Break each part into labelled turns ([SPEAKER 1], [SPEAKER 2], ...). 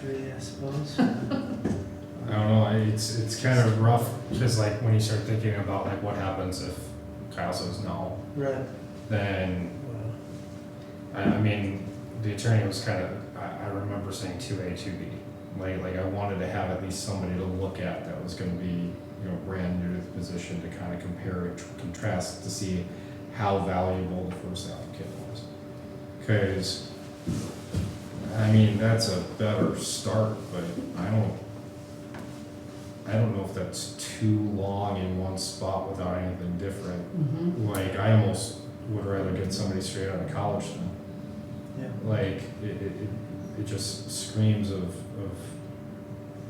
[SPEAKER 1] tree, I suppose.
[SPEAKER 2] I don't know. I- It's it's kind of rough because like when you start thinking about like what happens if Kyle says no,
[SPEAKER 1] Right.
[SPEAKER 2] then
[SPEAKER 1] Well,
[SPEAKER 2] I, I mean the attorney was kind of I, I remember saying two A two B. Like like I wanted to have at least somebody to look at that was going to be you know brand new to the position to kind of compare and tr- contrast to see how valuable the first applicant was. Because I mean that's a better start, but I don't I don't know if that's too long in one spot without anything different.
[SPEAKER 1] Mm-hmm.
[SPEAKER 2] Like, I almost would rather get somebody straight out of college than,
[SPEAKER 1] Yeah.
[SPEAKER 2] like, it, it, it- it just screams of, of,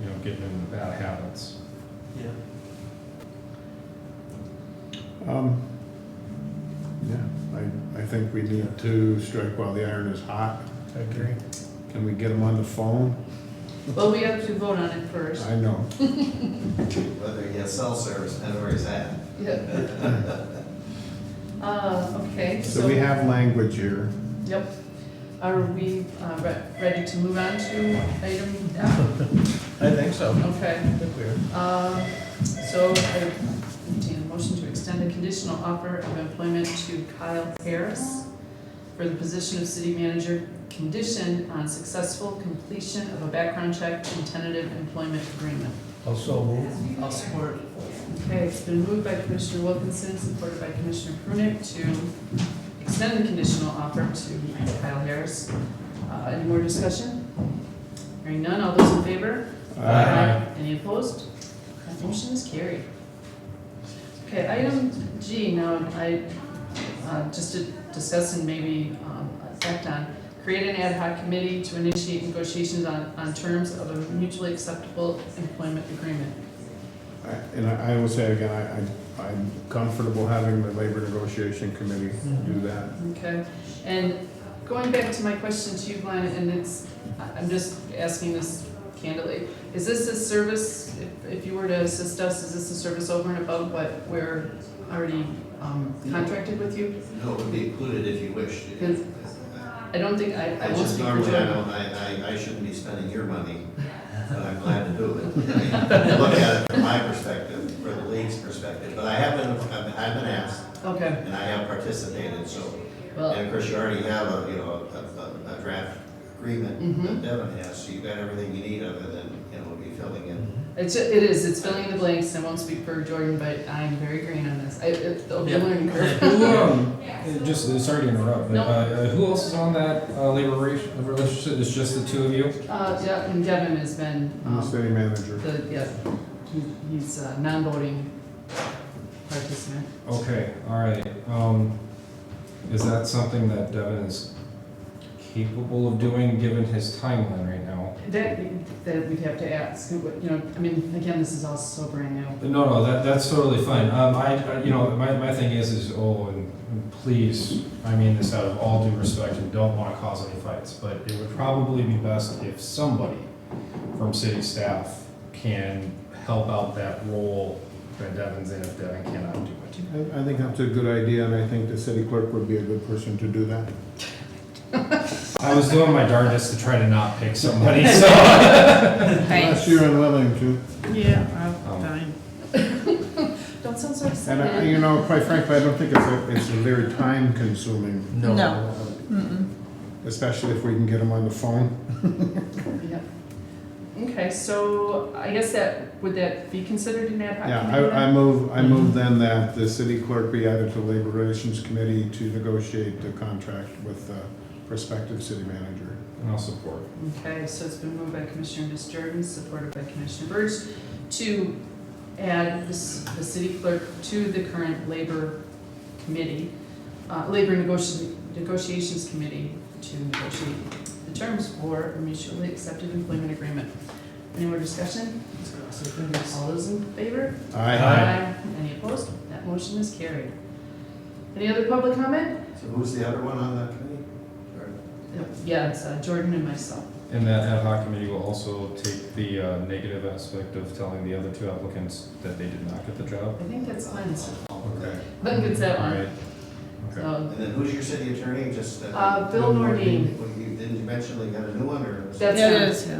[SPEAKER 2] you know, getting into bad habits.
[SPEAKER 1] Yeah.
[SPEAKER 3] Um, Yeah, I, I think we need to strike while the iron is hot.
[SPEAKER 2] I agree.
[SPEAKER 3] Can we get them on the phone?
[SPEAKER 4] Well, we have to vote on it first.
[SPEAKER 3] I know.
[SPEAKER 5] whether he has cell service, depends where he's at.
[SPEAKER 4] Yeah. Uh, okay, so.
[SPEAKER 3] So we have language here.
[SPEAKER 4] Yep. Are we, uh, re- ready to move on to item F?
[SPEAKER 5] I think so.
[SPEAKER 4] Okay, um, so I entertain a motion to extend the conditional offer of employment to Kyle Harris for the position of city manager, conditioned on successful completion of a background check and tentative employment agreement.
[SPEAKER 6] Also move.
[SPEAKER 1] I'll support.
[SPEAKER 4] Okay, it's been moved by Commissioner Wilkinson, supported by Commissioner Prunick to extend the conditional offer to Kyle Harris. Uh, Any more discussion? Hearing none, all those in favor?
[SPEAKER 3] Uh,
[SPEAKER 4] Uh-huh.
[SPEAKER 2] Aye.
[SPEAKER 4] Any opposed? That motion is carried. Okay, item G, now I, uh, just to discuss and maybe um, act on, create an ad hoc committee to initiate negotiations on, on terms of a mutually acceptable employment agreement.
[SPEAKER 3] I- And I I will say again, I, I- I'm comfortable having the labor negotiation committee
[SPEAKER 2] Mm-hmm.
[SPEAKER 3] do that.
[SPEAKER 4] Okay, and going back to my question to you, Glenn, and it's, I- I'm just asking this candidly, is this a service, if- if you were to assist us, is this a service over and above what we're already um, contracted with you?
[SPEAKER 5] No, it would be included if you wish.
[SPEAKER 4] Yes. I don't think, I, I
[SPEAKER 5] I
[SPEAKER 4] won't
[SPEAKER 5] just
[SPEAKER 4] speak for
[SPEAKER 5] normally, I
[SPEAKER 4] Joanna.
[SPEAKER 5] don't, I, I, I shouldn't be spending your money, but I'm glad to do it. I mean, Look at it from my perspective, from the league's perspective, but I have been, I've I've been asked,
[SPEAKER 4] Okay,
[SPEAKER 5] and I have participated, so. And
[SPEAKER 4] well,
[SPEAKER 5] of course, you already have a, you know, a, a, a draft agreement
[SPEAKER 4] Mhm.
[SPEAKER 5] that Devin has, so you've got everything you need other than, you know, be filling in.
[SPEAKER 4] it's, it is, it's filling in the blanks, I won't speak for Jordan, but I'm very green on this, I, it- it'll be a learning curve.
[SPEAKER 2] Who, um, uh, just, uh, sorry to interrupt, but,
[SPEAKER 4] No.
[SPEAKER 2] uh, uh, who else is on that, uh, labor rela- relationship? It's just the two of you?
[SPEAKER 4] Uh, yeah, and Devin has been,
[SPEAKER 3] I'm the
[SPEAKER 4] um,
[SPEAKER 3] city manager.
[SPEAKER 4] The, yeah, he- he's a non-voting participant.
[SPEAKER 2] Okay, all right, um, is that something that Devin is capable of doing, given his timeline right now?
[SPEAKER 4] That, that we'd have to ask, you know, I mean, again, this is all sobering now.
[SPEAKER 2] No, no, that, that's totally fine. Um, I, I- you know, my, my thing is, is, oh, and and please, I mean this out of all due respect and don't wanna cause any fights, but it would probably be best if somebody from city staff can help out that role that Devin's in if Devin cannot do it.
[SPEAKER 3] I, I think that's a good idea, and I think the city clerk would be a good person to do that.
[SPEAKER 2] I was doing my darndest to try to not pick somebody, so.
[SPEAKER 3] Unless you're unwilling to.
[SPEAKER 1] Yeah,
[SPEAKER 2] Um,
[SPEAKER 1] I'm fine.
[SPEAKER 4] Don't sound so
[SPEAKER 3] And I,
[SPEAKER 4] excited.
[SPEAKER 3] you know, quite frankly, I don't think it's, a- it's very time consuming.
[SPEAKER 6] No.
[SPEAKER 3] Especially if we can get them on the phone.
[SPEAKER 4] Yeah. Okay, so I guess that, would that be considered an ad hoc?
[SPEAKER 3] Yeah,
[SPEAKER 4] committee
[SPEAKER 3] I, I
[SPEAKER 4] then?
[SPEAKER 3] move, I move then that the city clerk be added to the Labor Relations Committee to negotiate the contract with the prospective city manager.
[SPEAKER 2] And I'll support.
[SPEAKER 4] Okay, so it's been moved by Commissioner Justardens, supported by Commissioner Birch, to add the, c- the city clerk to the current labor committee, uh, labor negoti- negotiations committee to negotiate the terms for a mutually accepted employment agreement. Any more discussion? All those in favor?
[SPEAKER 2] Aye.
[SPEAKER 4] Any opposed? That motion is carried. Any other public comment?
[SPEAKER 5] So who's the other one on that committee? Or-
[SPEAKER 4] Yeah, it's uh, Jordan and myself.
[SPEAKER 2] And that ad hoc committee will also take the, uh, negative aspect of telling the other two applicants that they did not get the
[SPEAKER 4] I
[SPEAKER 2] job.
[SPEAKER 4] think that's Glenn's.
[SPEAKER 5] Okay.
[SPEAKER 4] I think it's that
[SPEAKER 2] All
[SPEAKER 4] one.
[SPEAKER 2] right. Okay.
[SPEAKER 4] So
[SPEAKER 5] And then who's your city attorney, just? uh,
[SPEAKER 4] Uh, Bill Nordine.
[SPEAKER 5] Well, you- Didn't you mention they got a new one, or? was it-
[SPEAKER 4] That's
[SPEAKER 1] Yeah,
[SPEAKER 4] him.
[SPEAKER 1] it is, yeah.